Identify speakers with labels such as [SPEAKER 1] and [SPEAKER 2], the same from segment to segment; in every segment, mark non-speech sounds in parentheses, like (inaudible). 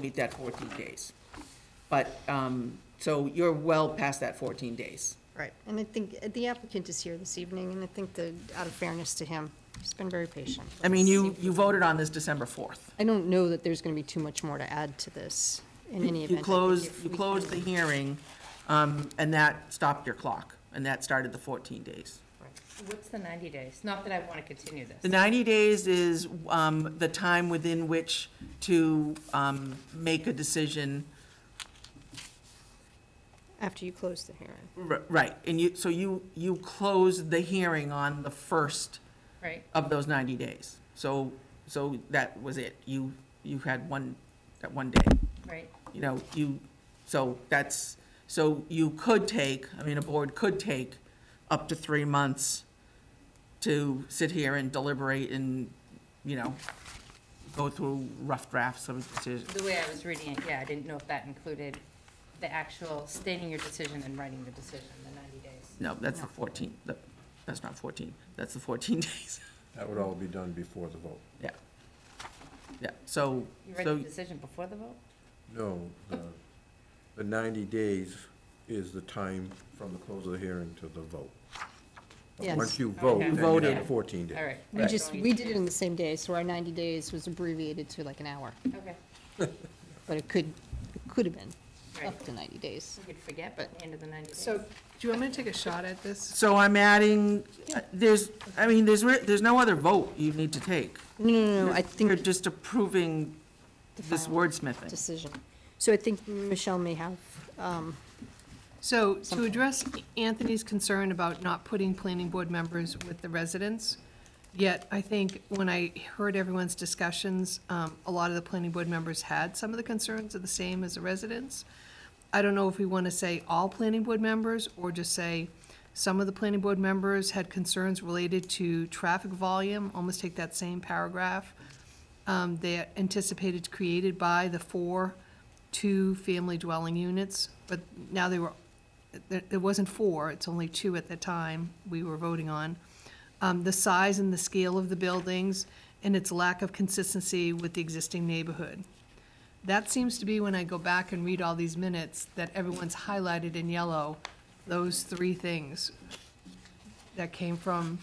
[SPEAKER 1] meet that fourteen days. But, um, so you're well past that fourteen days.
[SPEAKER 2] Right, and I think uh, the applicant is here this evening, and I think that, out of fairness to him, he's been very patient.
[SPEAKER 1] I mean, you, you voted on this December fourth.
[SPEAKER 2] I don't know that there's going to be too much more to add to this in any event.
[SPEAKER 1] You
[SPEAKER 2] I think
[SPEAKER 1] closed,
[SPEAKER 2] if
[SPEAKER 1] you
[SPEAKER 2] we
[SPEAKER 1] closed the
[SPEAKER 2] can-
[SPEAKER 1] hearing, um, and that stopped your clock, and that started the fourteen days.
[SPEAKER 3] What's the 90 days? Not that I want to continue
[SPEAKER 1] The
[SPEAKER 3] this.
[SPEAKER 1] ninety days is, um, the time within which to, um, make a decision.
[SPEAKER 2] After you close the hearing.
[SPEAKER 1] R- Right, and you, so you, you closed the hearing on the first
[SPEAKER 3] Right,
[SPEAKER 1] of those ninety days. So, so that was it. You, you had one, that one day.
[SPEAKER 3] right.
[SPEAKER 1] you know, you, so that's, so you could take, I mean, a board could take up to three months to sit here and deliberate and, you know, go through rough drafts of decisions.
[SPEAKER 3] The way I was reading it, yeah, I didn't know if that included the actual stating your decision and writing the decision, the 90 days.
[SPEAKER 1] No, that's the fourteen, the- that's not fourteen, that's the fourteen (laughs) days,
[SPEAKER 4] That would all be done before the vote.
[SPEAKER 1] yeah. Yeah, so,
[SPEAKER 3] You read
[SPEAKER 1] so,
[SPEAKER 3] the decision before the vote?
[SPEAKER 4] No, the, the ninety days is the time from the close of the hearing to the vote. But
[SPEAKER 2] Yes.
[SPEAKER 4] Once you vote,
[SPEAKER 3] Okay.
[SPEAKER 4] then you
[SPEAKER 1] Voted.
[SPEAKER 4] have fourteen
[SPEAKER 3] All
[SPEAKER 4] days.
[SPEAKER 3] right.
[SPEAKER 2] We just, we did it in the same day, so our 90 days was abbreviated to like an hour,
[SPEAKER 3] Okay,
[SPEAKER 2] but it could, it could have been
[SPEAKER 3] right.
[SPEAKER 2] up to 90 days.
[SPEAKER 3] We could forget by the end of the 90 days.
[SPEAKER 5] So, do you want me to take a shot at this?
[SPEAKER 1] so I'm adding, there's, I mean, there's, re- there's no other vote you need to take.
[SPEAKER 2] No, no, no, I think.
[SPEAKER 1] You're just approving
[SPEAKER 2] the
[SPEAKER 1] this
[SPEAKER 2] final
[SPEAKER 1] wordsmithing.
[SPEAKER 2] Decision. So I think Michelle may have, um,
[SPEAKER 5] So, to address Anthony's concern about not putting planning board members with the residents, yet I think when I heard everyone's discussions, um, a lot of the planning board members had some of the concerns are the same as the residents. I don't know if we want to say all planning board members, or just say some of the planning board members had concerns related to traffic volume, almost take that same paragraph. um, that anticipated created by the four two-family dwelling units, but now they were, there, it wasn't four, it's only two at the time we were voting on. Um, the size and the scale of the buildings and its lack of consistency with the existing neighborhood. That seems to be when I go back and read all these minutes, that everyone's highlighted in yellow, those three things that came from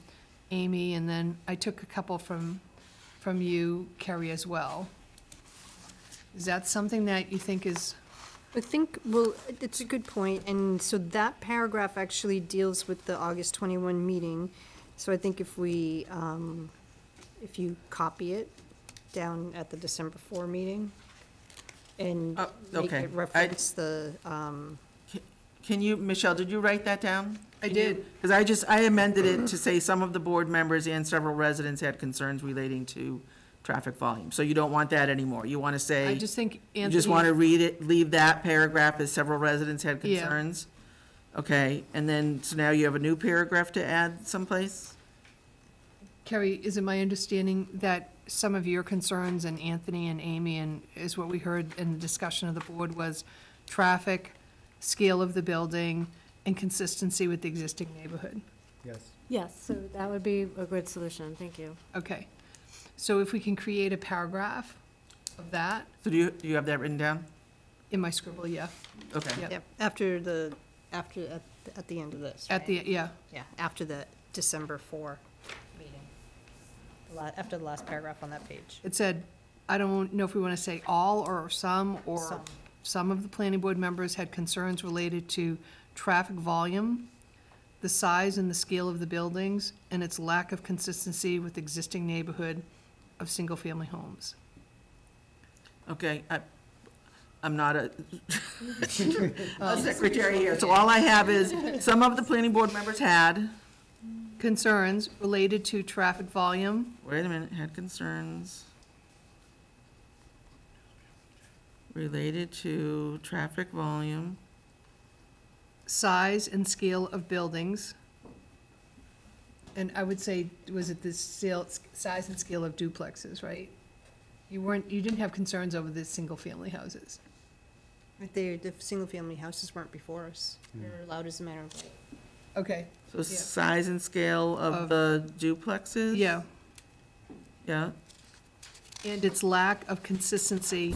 [SPEAKER 5] Amy, and then I took a couple from, from you, Kerry, as well. Is that something that you think is,
[SPEAKER 2] I think, well, it's a good point, and so that paragraph actually deals with the August 21 meeting. So I think if we, um, if you copy it down at the December 4 meeting and
[SPEAKER 1] Oh,
[SPEAKER 2] make
[SPEAKER 1] okay.
[SPEAKER 2] it reference the, um,
[SPEAKER 1] Can you, Michelle, did you write that down?
[SPEAKER 5] I did.
[SPEAKER 1] Because I just, I amended it to say some of the board members and several residents had concerns relating to traffic volume. So you don't want that anymore. You want to say.
[SPEAKER 5] I just think
[SPEAKER 1] You just want to
[SPEAKER 5] Anthony,
[SPEAKER 1] read it, leave that paragraph as several residents had
[SPEAKER 5] Yeah.
[SPEAKER 1] concerns? Okay, and then, so now you have a new paragraph to add someplace?
[SPEAKER 5] Kerry, is it my understanding that some of your concerns and Anthony and Amy and is what we heard in the discussion of the board was traffic, scale of the building, and consistency with the existing neighborhood?
[SPEAKER 6] Yes.
[SPEAKER 7] Yes, so that would be a good solution, thank you.
[SPEAKER 5] Okay, so if we can create a paragraph of that,
[SPEAKER 1] So do you, do you have that written down?
[SPEAKER 5] in my scribble, yeah,
[SPEAKER 1] Okay.
[SPEAKER 5] Yep.
[SPEAKER 2] yeah, after the, after, at, at the end of this.
[SPEAKER 5] at the, yeah,
[SPEAKER 2] Yeah, after the December 4 meeting, The la- after the last paragraph on that page.
[SPEAKER 5] it said, I don't know if we want to say all or some, or
[SPEAKER 2] Some.
[SPEAKER 5] some of the planning board members had concerns related to traffic volume, the size and the scale of the buildings, and its lack of consistency with existing neighborhood of single-family homes.
[SPEAKER 1] Okay, I, I'm not (laughs) a, a secretary here, Oh, so all I have (laughs) is, some of the planning board members had,
[SPEAKER 5] Concerns related to traffic volume,
[SPEAKER 1] wait a minute, had concerns related to traffic volume,
[SPEAKER 5] size and scale of buildings. And I would say, was it the scale, size and scale of duplexes, right? You weren't, you didn't have concerns over the single-family houses.
[SPEAKER 2] They, the single-family houses weren't before us. They were allowed as a matter of,
[SPEAKER 5] Okay,
[SPEAKER 1] so size and scale of
[SPEAKER 5] Of-
[SPEAKER 1] the duplexes?
[SPEAKER 5] yeah,
[SPEAKER 1] Yeah,
[SPEAKER 5] and its lack of consistency